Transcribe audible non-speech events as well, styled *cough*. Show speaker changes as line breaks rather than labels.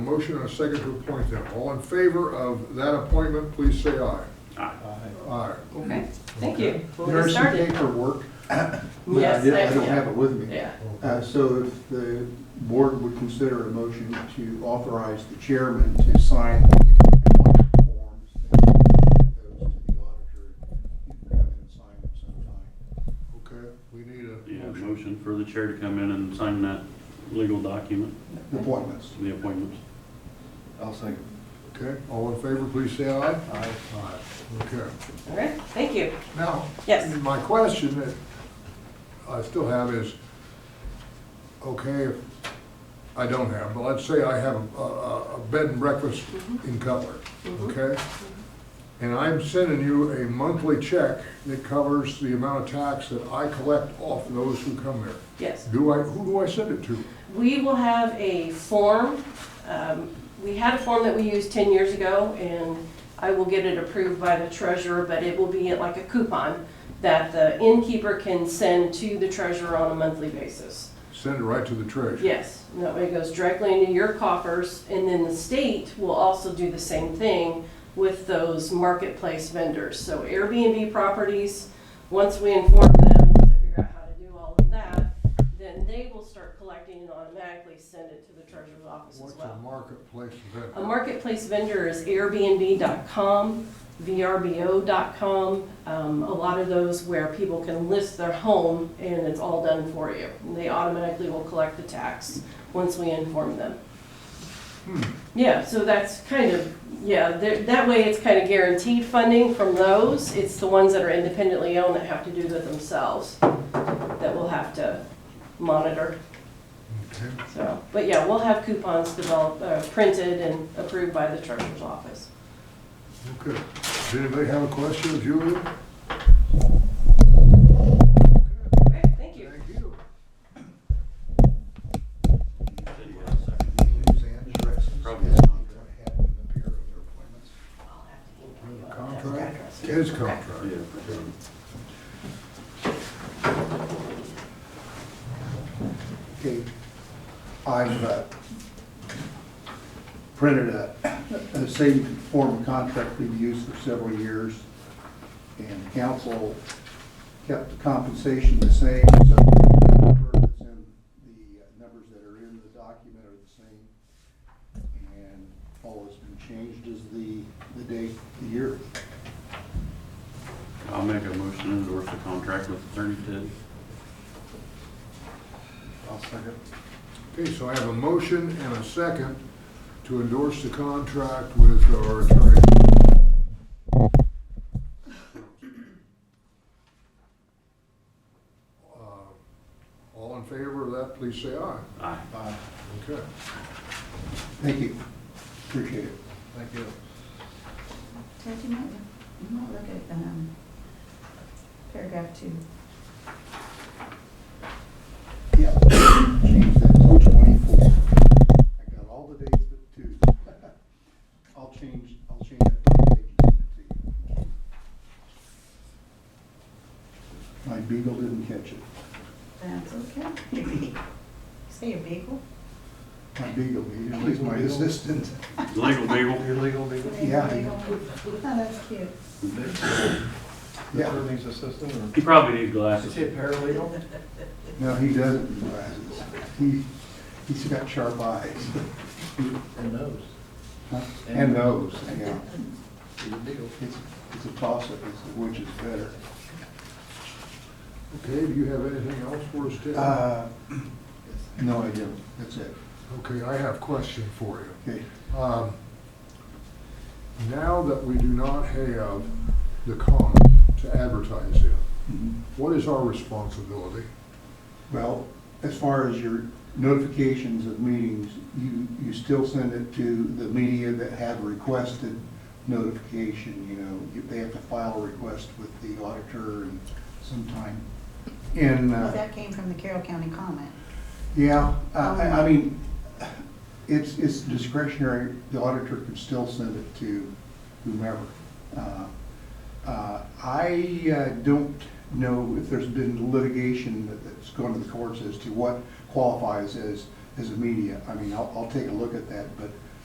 Motion and a second to appoint them. All in favor of that appointment, please say aye. Aye.
Okay, thank you. We'll get started.
RCA for work. but I
Yes,
did- I
that's-
don't have it with me.
Yeah,
Uh, So if the board would consider a motion to authorize the chairman to sign the appointment forms and get those to the auditor, you can come and sign them sometime.
Okay, we need
Yeah,
a motion.
motion for the chair to come in and sign that legal document,
Appointments.
the appointments.
I'll second.
Okay, all in favor, please say aye.
Aye.
Aye. Okay.
all right, thank you.
Now,
Yes.
my question that I still have is, okay, if I don't have, but let's say I have a- a, a bed and breakfast
Mm-hmm.
in Cutler, okay? And I'm sending you a monthly check that covers the amount of tax that I collect off those who come there.
Yes,
Do I, who do I send it to?
we will have a form. Um, We had a form that we used 10 years ago, and I will get it approved by the treasurer, but it will be like a coupon that the innkeeper can send to the treasurer on a monthly basis.
Send it right to the treasurer?
Yes, and that way it goes directly into your coffers, and then the state will also do the same thing with those marketplace vendors. So Airbnb properties, once we inform them, once they figure out how to do all of that, then they will start collecting and automatically send it to the treasurer's office as
What's a
well.
marketplace
A
event?
marketplace vendor is Airbnb.com, VRBO.com, um, a lot of those where people can list their home and it's all done for you. And They automatically will collect the tax once we inform them. Yeah, so that's kind of, yeah, there- that way it's kind of guaranteed funding from those. It's the ones that are independently owned that have to do it themselves that will have to monitor.
Okay.
So, but yeah, we'll have coupons developed, uh, printed and approved by the treasurer's office.
Okay. Does anybody have a question, Julie?
Okay, thank you.
Thank you.
Probably not.
I'll have to email you
The
all that
contract?
address.
His contract.
Yeah.
Okay, I've uh, printed a, the same form of contract we've used for several years, and the council kept the compensation the same, so the number that's in- the numbers that are in the document are the same, and all that's been changed is the, the date, the year.
I'll make a motion to endorse the contract with Attorney Tidd.
I'll second.
Okay, so I have a motion and a second to endorse the contract with our attorney. Uh, All in favor of that, please say aye.
Aye.
Aye.
Okay.
Thank you, appreciate it.
Thank you.
Ted, you might, you might look at, um, paragraph two.
Yeah, *coughs* change that to twenty-four. I got all the dates but two. *laughs* I'll change, I'll change that to the date you sent it to. My beagle didn't catch it.
That's okay. *laughs* Say a beagle?
My beagle, he- he's my *laughs* assistant.
Legal beagle.
Your legal legal,
Yeah.
Oh, that's cute.
the
Yeah,
attorney's assistant, or?
He probably needs
Is
glasses.
he a paralegal?
no, he doesn't need glasses. He, he's got sharp eyes. *laughs*
And knows.
Huh? And nose, yeah.
He's a legal.
It's, it's a toss-up, it's which is better.
Okay, do you have anything else for us, Ted?
Uh, *clears throat* no, I don't, that's it.
Okay, I have a question for you.
Okay.
Um, Now that we do not have the con to advertise in,
Mhm.
what is our responsibility?
Well, as far as your notifications of meetings, you, you still send it to the media that have requested notification, you know, you- they have to file a request with the auditor and sometime in,
Well,
uh,
that came from the Carroll County comment.
yeah, uh, I, I mean, it's, it's discretionary, the auditor can still send it to whomever. Uh, uh, I uh, don't know if there's been litigation that- that's gone to the courts as to what qualifies as, as a media. I mean, I'll, I'll take a look at that, but